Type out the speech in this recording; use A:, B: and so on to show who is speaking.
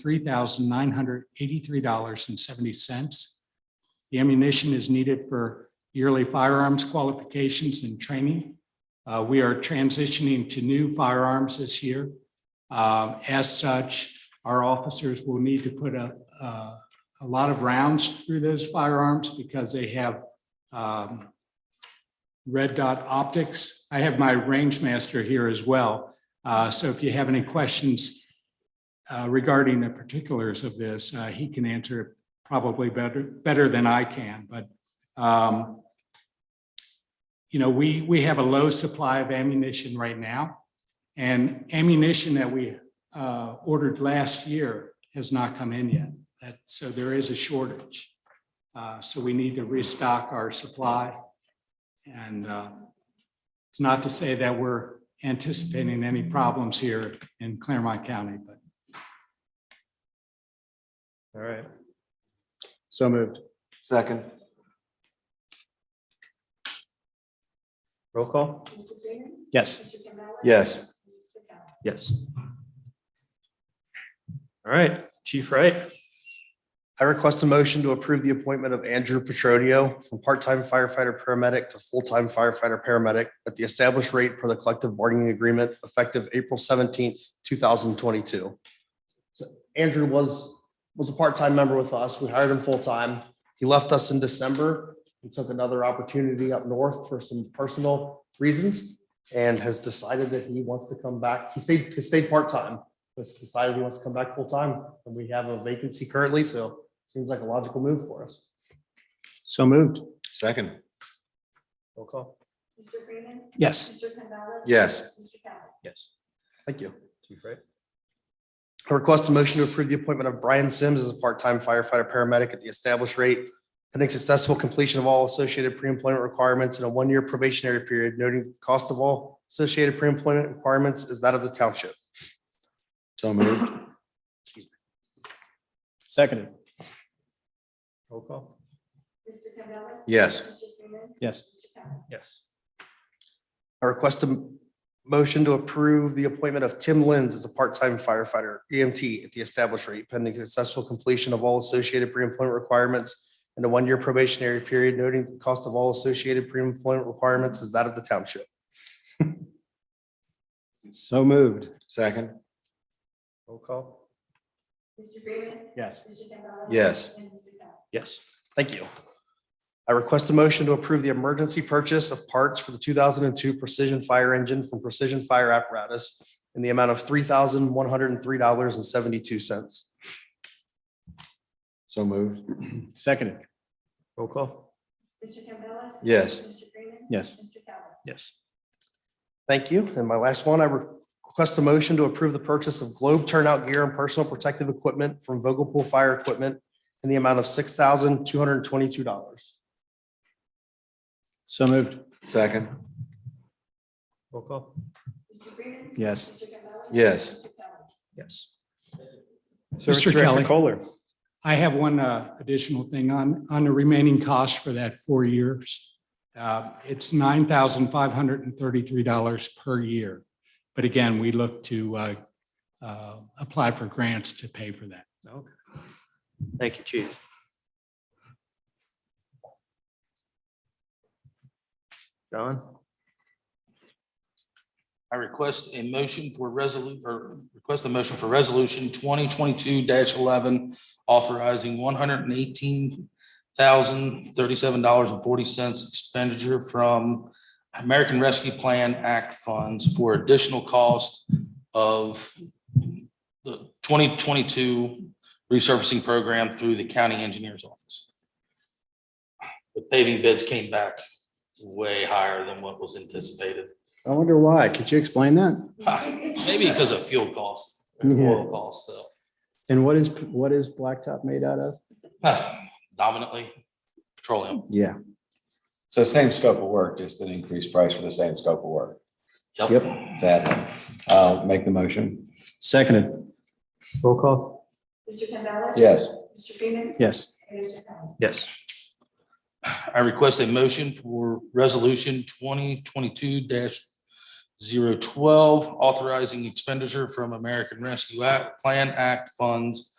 A: three thousand nine hundred eighty-three dollars and seventy cents. The ammunition is needed for yearly firearms qualifications and training. Uh, We are transitioning to new firearms this year. Uh, As such, our officers will need to put a, a a lot of rounds through those firearms because they have um, red dot optics. I have my range master here as well. Uh, So if you have any questions uh, regarding the particulars of this, uh, he can answer it probably better, better than I can, but um, you know, we, we have a low supply of ammunition right now. And ammunition that we uh, ordered last year has not come in yet. That, so there is a shortage. Uh, So we need to restock our supply. And uh, it's not to say that we're anticipating any problems here in Claremont County, but
B: All right. So moved.
C: Second.
B: Roll call?
D: Mr. Freeman.
B: Yes.
D: Mr. Campbell.
C: Yes.
D: Mrs. McDowell.
B: Yes. All right, Chief Wright,
C: I request a motion to approve the appointment of Andrew Petronio from part-time firefighter paramedic to full-time firefighter paramedic at the established rate per the collective bargaining agreement effective April seventeenth, two thousand twenty-two. So Andrew was, was a part-time member with us. We hired him full-time. He left us in December and took another opportunity up north for some personal reasons and has decided that he wants to come back. He stayed, he stayed part-time. Has decided he wants to come back full-time and we have a vacancy currently, so Seems like a logical move for us.
B: so moved.
E: Second,
B: Roll call?
D: Mr. Freeman.
B: Yes.
D: Mr. Campbell.
E: Yes.
D: Mr. Campbell.
B: Yes.
C: Thank you.
B: Chief Wright,
C: I request a motion to approve the appointment of Brian Sims as a part-time firefighter paramedic at the established rate pending successful completion of all associated pre-employment requirements in a one-year probationary period, noting that the cost of all associated pre-employment requirements is that of the township.
E: so moved.
B: seconded. Roll call?
D: Mr. Campbell.
E: Yes.
D: Mr. Freeman.
B: Yes.
D: Mr. Campbell.
B: Yes.
C: I request a motion to approve the appointment of Tim Lenz as a part-time firefighter EMT at the established rate pending successful completion of all associated pre-employment requirements and a one-year probationary period, noting the cost of all associated pre-employment requirements is that of the township.
B: So moved.
E: Second,
B: Roll call?
D: Mr. Freeman.
B: Yes.
D: Mr. Campbell.
E: Yes.
D: And Mr. Campbell.
B: Yes.
C: Thank you. I request a motion to approve the emergency purchase of parts for the two thousand and two Precision Fire Engine from Precision Fire Apparatus in the amount of three thousand one hundred and three dollars and seventy-two cents.
E: so moved.
B: Seconded. Roll call?
D: Mr. Campbell.
E: Yes.
D: Mr. Freeman.
B: Yes.
D: Mr. Campbell.
B: Yes.
C: Thank you. And my last one, I request a motion to approve the purchase of globe turnout gear and personal protective equipment from Vogel Pool Fire Equipment in the amount of six thousand two hundred and twenty-two dollars.
B: So moved.
E: Second,
B: Roll call?
D: Mr. Freeman.
B: Yes.
D: Mr. Campbell.
E: Yes.
D: Mr. Campbell.
B: Yes.
A: Mr. Kelly.
B: Kohler.
A: I have one uh, additional thing on, on the remaining cost for that four years. Uh, It's nine thousand five hundred and thirty-three dollars per year. But again, we look to uh, uh, apply for grants to pay for that.
B: Okay. Thank you, Chief. John?
F: I request a motion for resolu, or request a motion for resolution twenty twenty-two eleven, authorizing one hundred and eighteen thousand thirty-seven dollars and forty cents expenditure from American Rescue Plan Act funds for additional cost of the twenty twenty-two resurfacing program through the county engineer's office. The paving bids came back way higher than what was anticipated.
B: I wonder why. Could you explain that?
F: Ah, Maybe because of fuel costs, or
B: Yeah.
F: oil costs, so
B: And what is, what is blacktop made out of?
F: dominantly petroleum.
B: Yeah.
E: so same scope of work, just an increased price for the same scope of work.
F: Yep.
E: Sadly, I'll make the motion.
B: Seconded. Roll call?
D: Mr. Campbell.
E: Yes.
D: Mr. Freeman.
B: Yes.
D: And Mr. Campbell.
B: Yes.
F: I request a motion for resolution twenty twenty-two 12 authorizing expenditure from American Rescue Act Plan Act funds